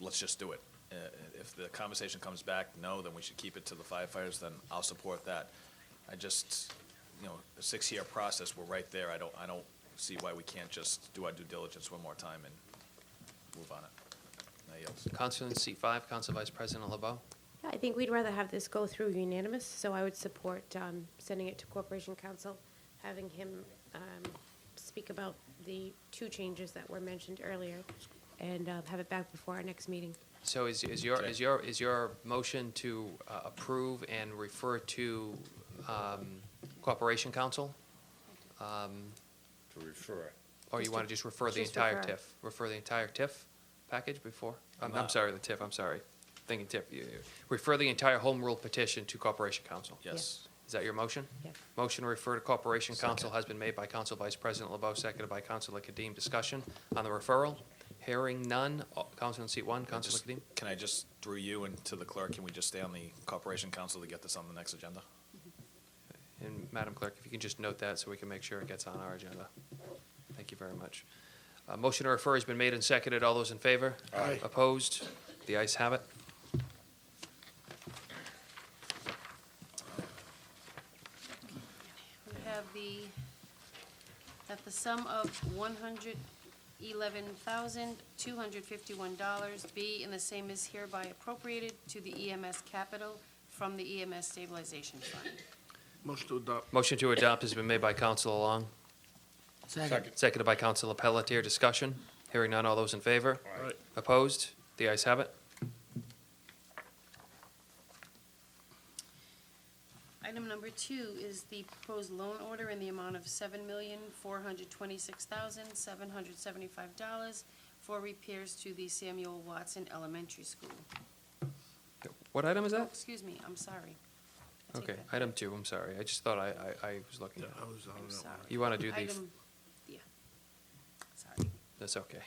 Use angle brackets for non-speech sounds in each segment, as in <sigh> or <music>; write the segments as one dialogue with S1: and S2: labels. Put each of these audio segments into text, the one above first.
S1: let's just do it. Uh, If the conversation comes back, no, then we should keep it to the firefighters, then I'll support that. I just, you know, a six-year process, we're right there. I don't, I don't see why we can't just do our due diligence one more time and move on it. Now, yes.
S2: Counselor in seat five, Counsel Vice President LeBeau.
S3: Yeah, I think we'd rather have this go through unanimous, so I would support um, sending it to Corporation Council, having him um, speak about the two changes that were mentioned earlier, and uh, have it back before our next meeting.
S2: So is, is your,
S1: Okay.
S2: is your, is your motion to uh, approve and refer to um, Corporation Council? Um,
S4: to refer.
S2: Or you
S3: Just
S2: want to
S3: to-
S2: just refer the
S3: just
S2: entire
S3: refer.
S2: TIF? Refer the entire TIF package before? I'm,
S1: No.
S2: I'm sorry, the TIF, I'm sorry. Thinking TIF. You- you- Refer the entire home rule petition to Corporation Council.
S1: Yes.
S2: Is that your motion?
S3: Yep.
S2: Motion to refer to Corporation Council
S1: Second.
S2: has been made by Council Vice President LeBeau, seconded by Councilor Kadim. Discussion on the referral? Hearing none. All- Council in seat one, Councilor
S1: Just-
S2: Kadim.
S1: Can I just, through you and to the clerk, can we just stay on the Corporation Council to get this on the next agenda?
S2: And Madam Clerk, if you can just note that so we can make sure it gets on our agenda. Thank you very much. Uh, Motion to refer has been made and seconded. All those in favor?
S4: Aye.
S2: Opposed? The ayes have it.
S5: We have the, that the sum of one hundred eleven thousand, two hundred fifty-one dollars be and the same is hereby appropriated to the EMS capital from the EMS stabilization fund.
S6: Motion to adopt.
S2: Motion to adopt has been made by Council Long,
S4: Second.
S2: seconded by Council Pelletier. Discussion? Hearing none. All those in favor?
S4: Aye.
S2: Opposed? The ayes have it.
S5: Item number two is the proposed loan order in the amount of seven million, four hundred twenty-six thousand, seven hundred seventy-five dollars for repairs to the Samuel Watson Elementary School.
S2: What item is
S5: Oh,
S2: that?
S5: excuse me, I'm sorry. I take
S2: Okay,
S5: that back.
S2: item two, I'm sorry. I just thought I, I, I was looking.
S6: Yeah, I was on
S5: I'm
S6: that
S5: sorry.
S6: one.
S2: You want to do the,
S5: Item, yeah, sorry.
S2: that's okay.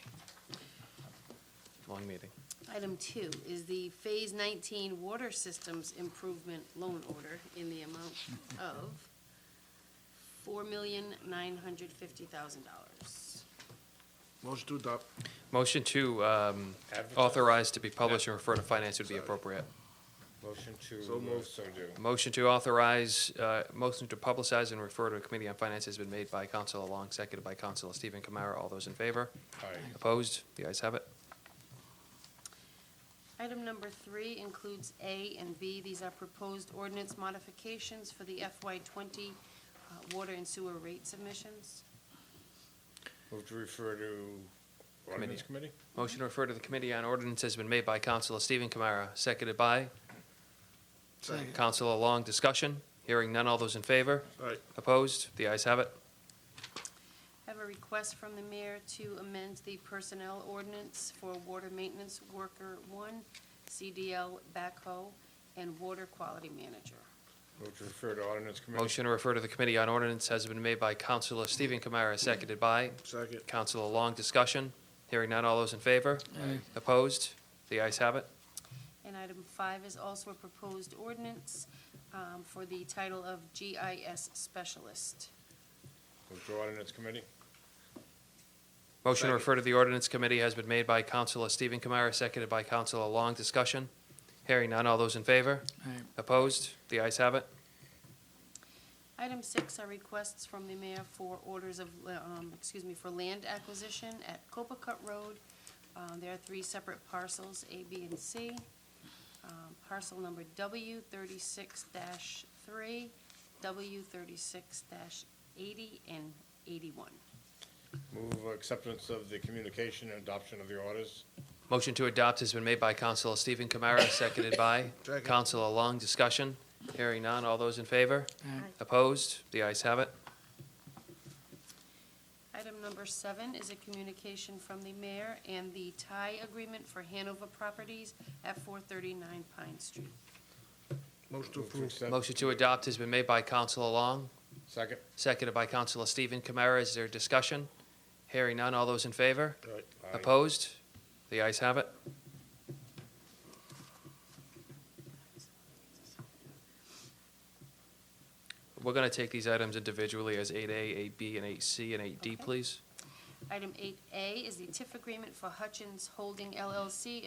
S2: Long meeting.
S5: Item two is the Phase 19 Water Systems Improvement Loan Order in
S2: <laughs>
S5: the amount of $4,950,000.
S6: Motion to adopt.
S2: Motion to um,
S4: Advertise.
S2: authorize to be published and refer to finance would be appropriate.
S4: Motion
S6: So
S4: to, uh,
S6: moved.
S4: so do.
S2: Motion to authorize, uh, motion to publicize and refer to a committee on finance has been made by Councilor Long, seconded by Councilor Stephen Kamara. All those in favor?
S4: Aye.
S2: Opposed? The ayes have it.
S5: Item number three includes A and B. These are proposed ordinance modifications for the FY20 uh, water and sewer rate submissions.
S4: Move to refer to ordinance committee?
S2: Motion to refer to the committee on ordinance has been made by Councilor Stephen Kamara, seconded by
S6: Second.
S2: Councilor Long. Discussion? Hearing none. All those in favor?
S6: Aye.
S2: Opposed? The ayes have it.
S5: I have a request from the mayor to amend the personnel ordinance for water maintenance worker one, CDL backhoe, and water quality manager.
S4: Move to refer to ordinance committee?
S2: Motion to refer to the committee on ordinance has been made by Councilor Stephen Kamara, seconded by
S6: Second.
S2: Councilor Long. Discussion? Hearing none. All those in favor?
S6: Aye.
S2: Opposed? The ayes have it.
S5: And item five is also a proposed ordinance um, for the title of GIS specialist.
S4: Move to ordinance committee?
S2: Motion to
S6: Second.
S2: refer to the ordinance committee has been made by Councilor Stephen Kamara, seconded by Councilor Long. Discussion? Hearing none. All those in favor?
S6: Aye.
S2: Opposed? The ayes have it.
S5: Item six are requests from the mayor for orders of, um, excuse me, for land acquisition at Copacut Road. Um, There are three separate parcels, A, B, and C. Um, Parcel number W thirty-six three, W thirty-six eighty, and eighty-one.
S4: Move acceptance of the communication and adoption of the orders?
S2: Motion to adopt has been made by Councilor Stephen Kamara, seconded by
S6: Second.
S2: Councilor Long. Discussion? Hearing none. All those in favor? Opposed? The ayes have it.
S5: Item number seven is a communication from the mayor and the tie agreement for Hanover Properties at four thirty-nine Pine Street.
S6: Motion to
S4: Move to
S6: approve.
S4: accept-
S2: Motion to adopt has been made by Councilor Long,
S4: Second?
S2: seconded by Councilor Stephen Kamara. Is there discussion? Hearing none. All those in favor?
S6: Aye.
S4: Aye.
S2: Opposed? The ayes have it. We're going to take these items individually as 8A, 8B, and 8C, and 8D,
S5: Okay.
S2: please.
S5: Item eight A is the TIF agreement for Hutchins Holding LLC